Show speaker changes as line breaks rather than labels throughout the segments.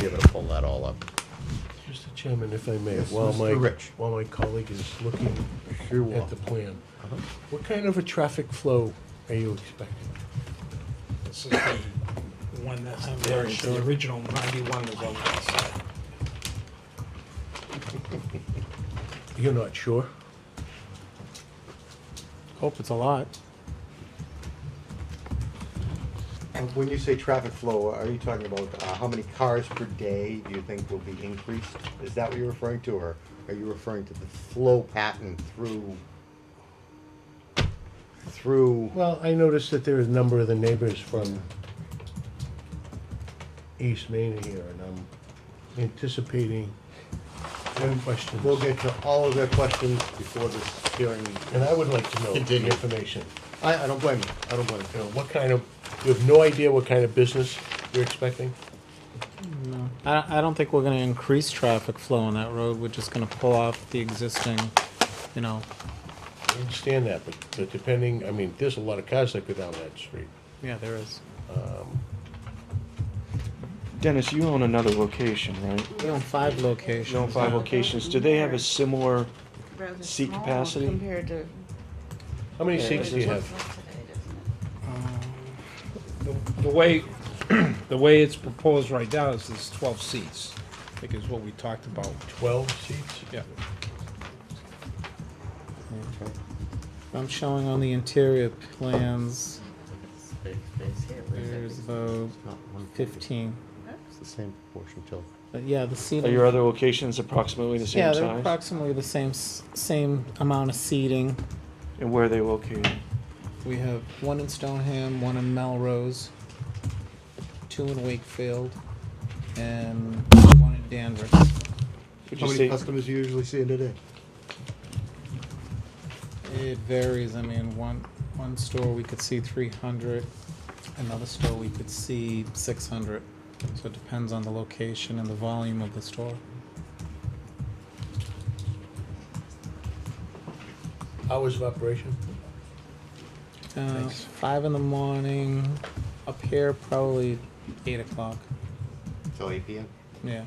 be able to pull that all up.
Mr. Chairman, if I may,
Yes,
while my,
Mr. Rich.
while my colleague is looking
Sure
at the plan, what kind of a traffic flow are you expecting?
This is the one that's on there, the original ninety-one was on that side.
You're not sure? Hope it's a lot.
And When you say traffic flow, are you talking about uh, how many cars per day do you think will be increased? Is that what you're referring to, or are you referring to the flow pattern through, through,
Well, I noticed that there is a number of the neighbors from East Main here, and I'm anticipating questions.
we'll get to all of their questions before this hearing.
And I would like to know the
Continue.
information.
I, I don't blame you, I don't blame
You
you.
know, what kind of, you have no idea what kind of business you're expecting?
I, I don't think we're gonna increase traffic flow on that road, we're just gonna pull off the existing, you know,
I understand that, but, but depending, I mean, there's a lot of cars that go down that street.
yeah, there is.
Dennis, you own another location, right?
We own five locations.
You own five locations. Do they have a similar?
rather
Seat
small
capacity?
Compared to.
How many
Yeah,
seats do you
what
have?
it's today, doesn't it?
The- The way, the way it's proposed right now is there's twelve seats, I think is what we talked about.
Twelve seats?
Yeah.
I'm showing on the interior plans,
Space, space here, where is that?
there's about
Not one
fifteen,
It's the same proportion till.
but yeah, the
Are your
seating.
other locations approximately Oh, the
Yeah,
same
they're
size?
approximately the same, s- same amount of seating.
And where are they located?
We have one in Stoneham, one in Melrose, two in Wakefield, and one in Danvers.
Would
How
you
many
say,
customers you usually see in a day?
It varies, I mean, one, one store we could see three hundred, another store we could see six hundred. So it depends on the location and the volume of the store.
Hours of operation?
Uh, five in the morning, up here probably eight o'clock,
Till eight PM.
yeah.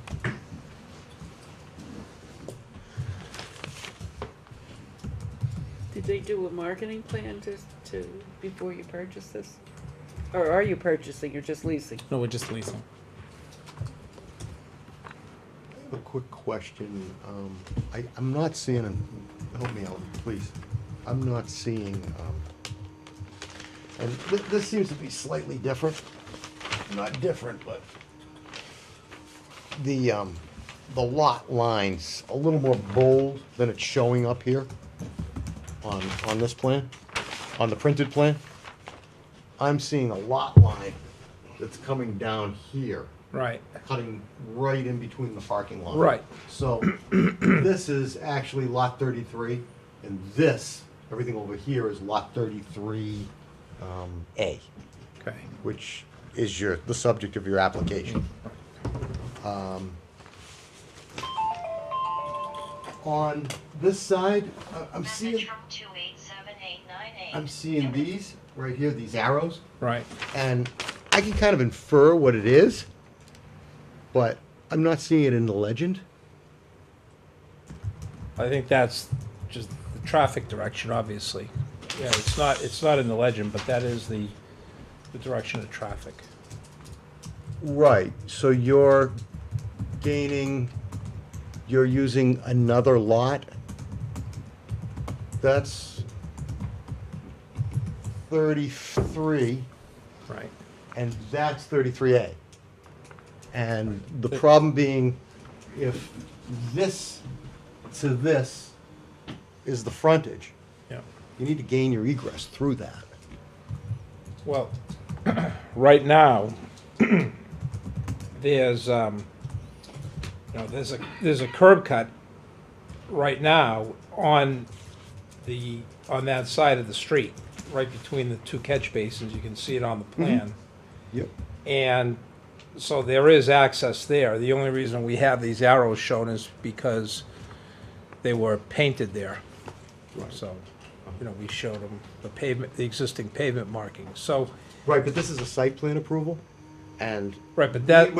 Did they do a marketing plan to, to, before you purchase this? Or are you purchasing, you're just leasing?
No, we're just leasing.
I have A quick question. Um, I, I'm not seeing, a- help me out, please. I'm not seeing, um, and this, this seems to be slightly different. Not different, but the, um, the lot lines a little more bold than it's showing up here on, on this plan, on the printed plan. I'm seeing a lot line that's coming down here
Right.
cutting right in between the parking lot.
Right.
So this is actually lot thirty-three, and this, everything over here is lot thirty-three, um, A,
Okay.
which is your, the subject of your application. Um, On this side, I- I'm seeing,
Message from two eight seven eight nine eight.
I'm seeing these, right here, these arrows.
Right.
and I can kind of infer what it is, but I'm not seeing it in the legend.
I think that's just the traffic direction, obviously. Yeah, it's not, it's not in the legend, but that is the, the direction of traffic.
Right. So you're gaining, you're using another lot. That's 33,
Right.
and that's 33A. And the problem being, if this to this is the frontage,
Yeah.
you need to gain your egress through that.
Well, right now, there's, um, you know, there's a, there's a curb cut right now on the, on that side of the street, right between the two catch basins, you can see it on the plan.
Yep.
And so there is access there. The only reason we have these arrows shown is because they were painted there. So, you know, we showed them the pavement, the existing pavement markings. So,
Right, but this is a site plan approval, and
right, but that,